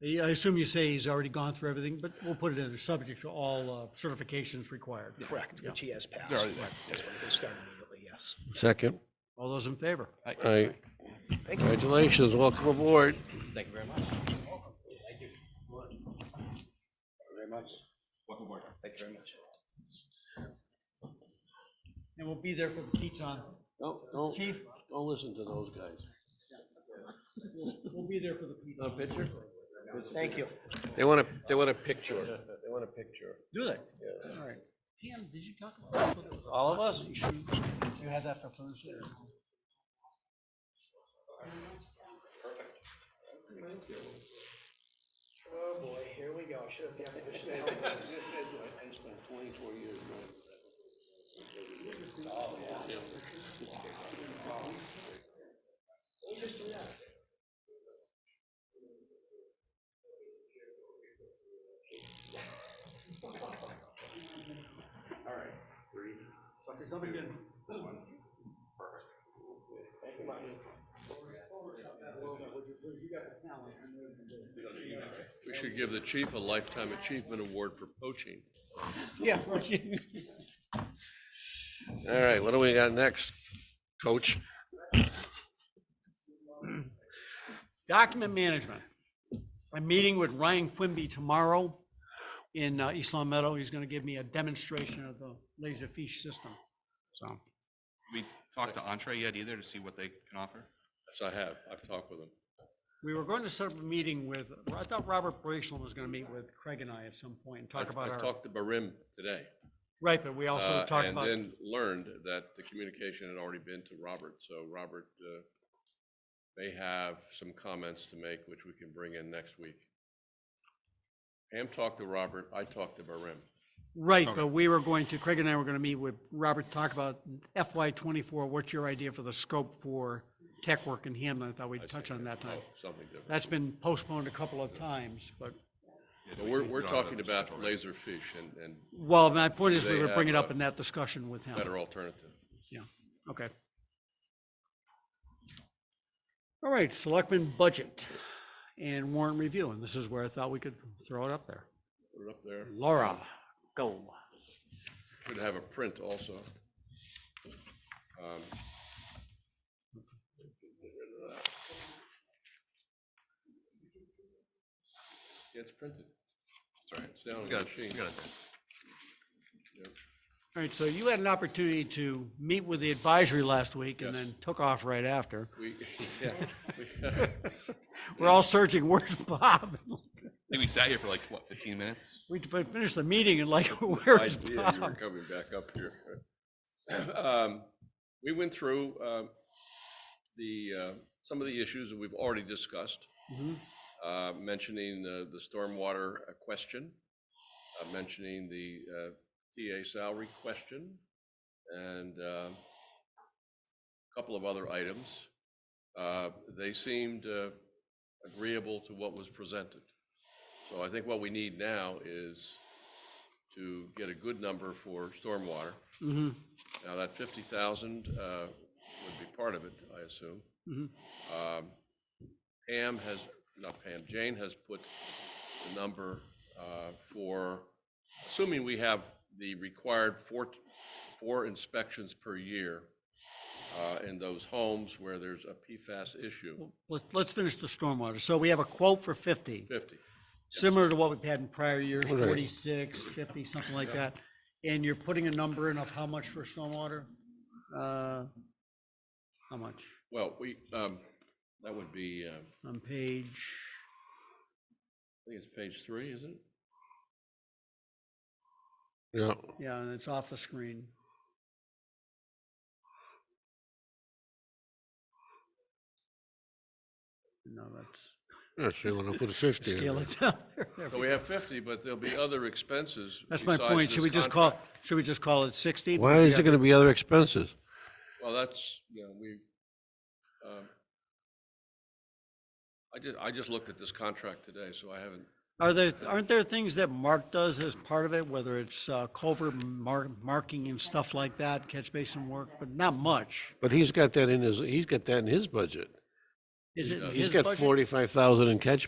Yeah, I assume you say he's already gone through everything, but we'll put it in there, subject to all uh, certifications required. Correct, which he has passed. already there, That's why he started immediately, yes. Second. All those in favor? All right. Congratulations. Welcome aboard. Thank you very much. Very much. Welcome aboard. Thank you very much. And we'll be there for the pizza on, Don't, don't, chief, don't listen to those guys. we'll be there for the pizza. A picture? Thank you. They want a, they want a picture. They want a picture. Do they? Yeah. All right. Pam, did you talk about? All of us? You had that for Thursday? or- Oh, boy, here we go. Should have, I should have I spent twenty-four years We should give the chief a lifetime achievement award for poaching. Yeah. All right, what do we got next, coach? Document management. I'm meeting with Ryan Quimby tomorrow in uh, East Long Meadow. He's going to give me a demonstration of the laser fiche system. So, We talked to Entree yet either to see what they can offer? Yes, I have. I've talked with him. we were going to set up a meeting with, I thought Robert Braceland was going to meet with Craig and I at some point and talk I- about I our, talked to Barim today. right, but we also uh, talked about, And then learned that the communication had already been to Robert, so Robert uh, may have some comments to make, which we can bring in next week. Pam talked to Robert, I talked to Barim. right, but we were going to, Craig and I were going to meet with Robert, talk about FY twenty-four, what's your idea for the scope for tech work in Hamlin? I thought I we'd touch said, on that time. "Oh, Something different. That's been postponed a couple of times, but But we're, we're talking about laserfish and, and Well, my point is, we They were bringing it have uh, up a- in that discussion with him. better alternative. Yeah, okay. All right, selectmen budget and warrant review, and this is where I thought we could throw it up there. Put it up there. Laura, go. Should have a print also. Um, yeah, It's printed. Sorry. It's down on We the got, machine. we got it. All right, so you had an opportunity to meet with the advisory last week and Yes. then took off right after. We, yeah, we- We're all searching, where's Bob? I think we sat here for like, what, 15 minutes? We finished the meeting and like, I where's did, you were Bob? coming back up here. Um, We went through um, the, uh, some of the issues that we've already discussed. Mhm. uh, mentioning uh, the stormwater uh, question, uh, mentioning the uh, TA salary question, and uh, a couple of other items. Uh, They seemed uh, agreeable to what was presented. So I think what we need now is to get a good number for stormwater. Mhm, Now, that 50,000 uh, would be part of it, I assume. mhm. Um, Pam has, not Pam, Jane has put the number uh, for, assuming we have the required four, four inspections per year uh, in those homes where there's a PFAS issue, Let's, let's finish the stormwater. So we have a quote for fifty. 50. similar to what we've had in prior years, Right. 46, 50, something like that. And you're putting a number in of how much for stormwater? Uh, How much? Well, we, um, that would be, uh, I On page, think it's page three, isn't it? Yeah, yeah, and it's off the screen. No, that's, yeah, so you want to put a 50 in scale there. it down. there. There So we- we have 50, but there'll be other expenses. That's my besides point. Should this we just call, contract. should we just call it 60? Why is there going to be other expenses? Well, that's, you know, we, um, I just, I just looked at this contract today, so I haven't, Are there, aren't there things that Mark does as part of it, whether it's uh, culvert mar- marking and stuff like that, catch basin work, but not much? But he's got that in his, he's got that in his budget. Is it in does. He's his got budget? 45,000 in catch